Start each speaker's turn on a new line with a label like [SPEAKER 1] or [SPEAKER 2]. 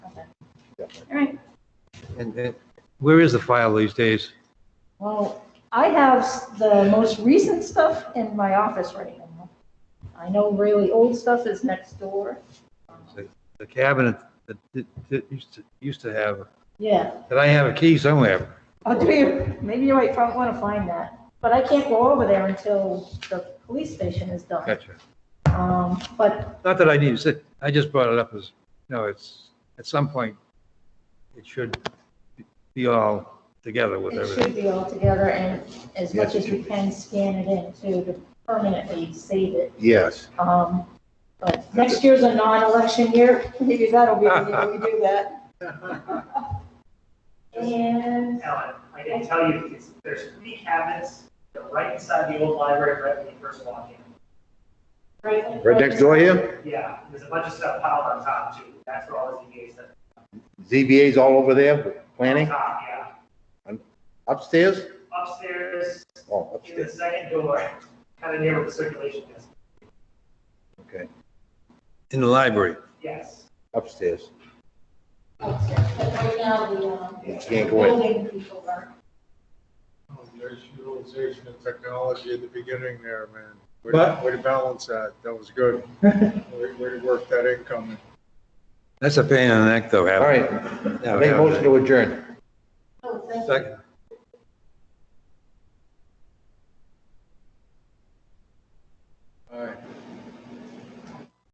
[SPEAKER 1] All right.
[SPEAKER 2] And, and where is the file these days?
[SPEAKER 1] Well, I have s- the most recent stuff in my office right now. I know really old stuff is next door.
[SPEAKER 2] The cabinet that, that, that used to, used to have,
[SPEAKER 1] Yeah.
[SPEAKER 2] that I have a key somewhere.
[SPEAKER 1] Oh, do you? Maybe you might want to find that. But I can't go over there until the police station is done.
[SPEAKER 2] Gotcha.
[SPEAKER 1] Um, but,
[SPEAKER 2] Not that I need to sit, I just brought it up as, no, it's, at some point, it should be all together with
[SPEAKER 1] It should
[SPEAKER 2] everything.
[SPEAKER 1] be all together and as much
[SPEAKER 3] Yes, it
[SPEAKER 1] as we
[SPEAKER 3] should be.
[SPEAKER 1] can scan it in too, to permanently save it.
[SPEAKER 3] Yes.
[SPEAKER 1] Um, but next year's a non-election year, maybe that'll be the year we do that. And,
[SPEAKER 4] Ellen, I can tell you, it's, there's three cabinets, they're right inside the old library, right when you first walk in.
[SPEAKER 1] right.
[SPEAKER 3] Right next door here,
[SPEAKER 4] Yeah, there's a bunch of stuff piled on top too, that's where all the ZBA stuff.
[SPEAKER 3] ZBA's all over there,
[SPEAKER 4] on
[SPEAKER 3] planning,
[SPEAKER 4] Top, yeah,
[SPEAKER 3] upstairs,
[SPEAKER 4] upstairs,
[SPEAKER 3] oh,
[SPEAKER 4] in the
[SPEAKER 3] upstairs,
[SPEAKER 4] second door, kind of near where the circulation is,
[SPEAKER 3] okay,
[SPEAKER 2] In the library.
[SPEAKER 4] yes.
[SPEAKER 3] upstairs.
[SPEAKER 1] upstairs. But right now, the, um,
[SPEAKER 3] You can't go in.
[SPEAKER 1] building people are,
[SPEAKER 5] Oh, There's utilization of technology at the beginning there, man. Way
[SPEAKER 2] But-
[SPEAKER 5] to- way to balance that. That was good. Way way to work that income.
[SPEAKER 2] That's a pain in the neck though,
[SPEAKER 3] All
[SPEAKER 2] having.
[SPEAKER 3] right, make a motion to adjourn.
[SPEAKER 1] oh, thank you.
[SPEAKER 2] Second,